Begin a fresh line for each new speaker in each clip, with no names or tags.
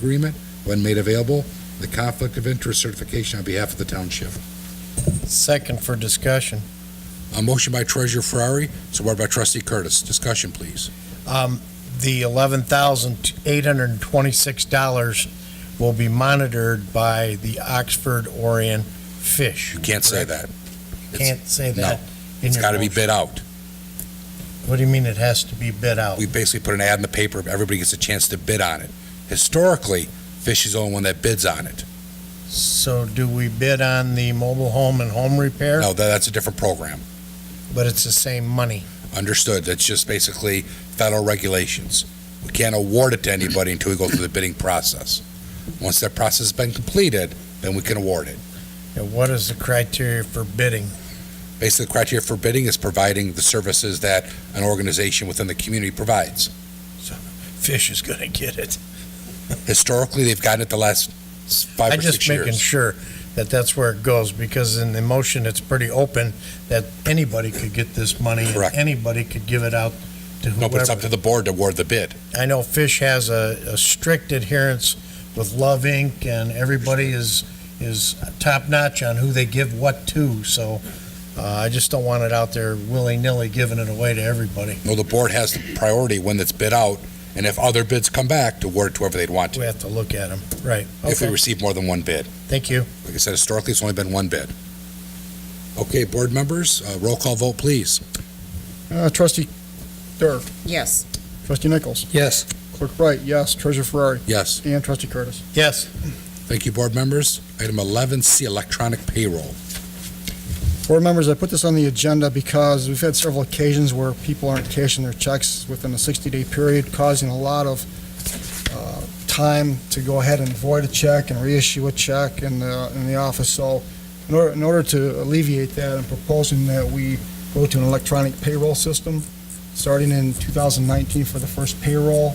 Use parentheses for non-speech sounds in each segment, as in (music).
agreement when made available, the conflict of interest certification on behalf of the township.
Second for discussion.
A motion by Treasurer Ferrari, supported by Trustee Curtis. Discussion, please.
Um, The $11,826 will be monitored by the Oxford Orient Fish.
You can't say that.
Can't say
no.
that. in
It's
your
got to be
motion.
bid out.
What do you mean it has to be bid out?
We basically put an ad in the paper, everybody gets a chance to bid on it. Historically, Fish is the only one that bids on it.
So do we bid on the mobile home and home repair?
No, tha- that's a different program.
But it's the same money.
Understood. That's just basically federal regulations. We can't award it to anybody until we go through the bidding process. Once that process has been completed, then we can award it.
And what is the criteria for bidding?
Basically, the criteria for bidding is providing the services that an organization within the community provides.
Fish is going to get it.
Historically, they've gotten it the last s- five
I'm
or six
just making
years.
sure that that's where it goes, because in the motion, it's pretty open, that anybody could get this money. and
Correct.
Anybody could give it out to
No, but it's up to
whoever.
the board to award the bid.
I know Fish has a, a strict adherence with Love Inc., and everybody is, is top-notch on who they give what to, so, uh, I just don't want it out there willy-nilly giving it away to everybody.
No, the board has the priority when it's bid out, and if other bids come back, to award it to whoever they'd want
We
to,
have to look at them, right.
if we
Okay,
receive more than one bid.
thank you.
Like I said, historically, it's only been one bid. Okay, board members, uh, roll call vote, please.
Uh, Trustee Dur,
Yes,
Trustee Nichols,
Yes.
Clerk Wright, yes, Treasurer Ferrari,
Yes,
and Trustee Curtis.
Yes,
thank you, board members. Item 11C, electronic payroll.
Board members, I put this on the agenda because we've had several occasions where people aren't cashing their checks within a 60-day period, causing a lot of uh, time to go ahead and void a check and reissue a check in the, in the office. So in order, in order to alleviate that, I'm proposing that we go to an electronic payroll system, starting in 2019 for the first payroll.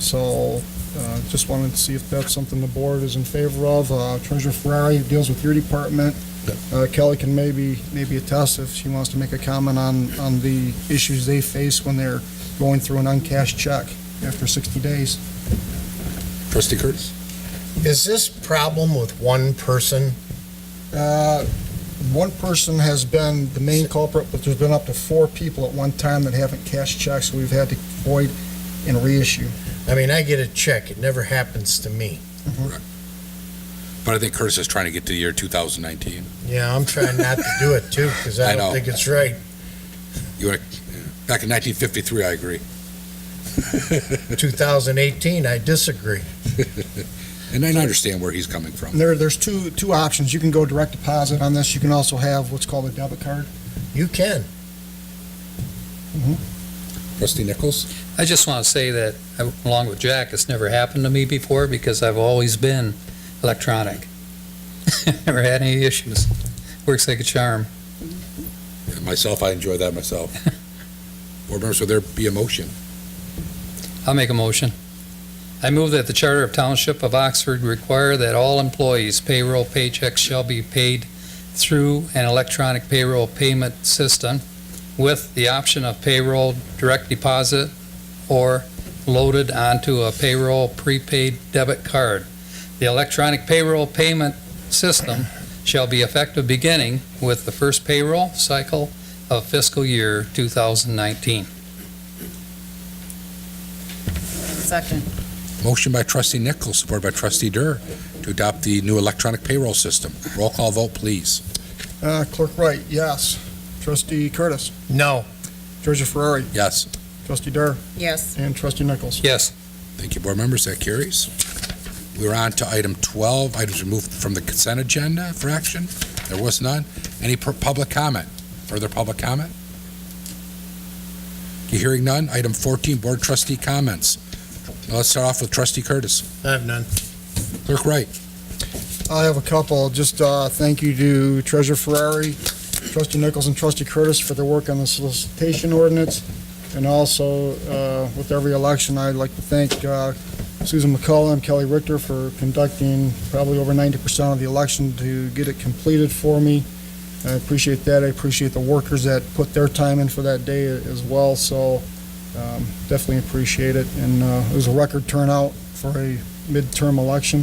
So uh, just wanted to see if that's something the board is in favor of. Uh, Treasurer Ferrari deals with your department. Uh, Kelly can maybe, maybe attest if she wants to make a comment on, on the issues they face when they're going through an uncashed check after 60 days.
Trustee Curtis?
is this problem with one person?
Uh, One person has been the main culprit, but there's been up to four people at one time that haven't cashed checks, so we've had to void and reissue.
I mean, I get a check, it never happens to me.
But I think Curtis is trying to get to the year 2019.
Yeah, I'm trying not to do it too,
(laughs)
because
I
I
know.
don't think it's right.
You want to, back in 1953, I agree. (laughs)
2018, I disagree.
And I understand where he's coming from.
And there, there's two, two options. You can go direct deposit on this. You can also have what's called a debit card.
You can.
Trustee Nichols?
I just want to say that, uh, along with Jack, it's never happened to me before because I've always been electronic. (laughs) Never had any issues. Works like a charm.
Myself, I enjoy that myself. Board members, will there be a motion?
I'll make a motion. I move that the Charter of Township of Oxford require that all employees' payroll paychecks shall be paid through an electronic payroll payment system with the option of payroll direct deposit or loaded onto a payroll prepaid debit card. The electronic payroll payment system shall be effective beginning with the first payroll cycle of fiscal year 2019.
second,
Motion by trustee Nichols, supported by trustee Dur, to adopt the new electronic payroll system. Roll call vote, please.
Uh, Clerk Wright, yes. Trustee Curtis,
No,
Treasurer Ferrari,
Yes.
Trustee Dur,
yes,
and Trustee Nichols.
Yes.
Thank you, board members. That carries. We're on to item 12, items removed from the consent agenda for action. There was none. Any per- public comment? Further public comment? You hearing none? Item 14, board trustee comments. Now, Let's start off with trustee Curtis.
I have none.
Clerk Wright.
I have a couple. Just uh, thank you to Treasurer Ferrari, Trustee Nichols, and Trustee Curtis for their work on the solicitation ordinance. And also, uh, with every election, I'd like to thank uh, Susan McCullough and Kelly Richter for conducting probably over 90% of the election to get it completed for me. I appreciate that. I appreciate the workers that put their time in for that day as well, so um, definitely appreciate it. And uh, it was a record turnout for a midterm election.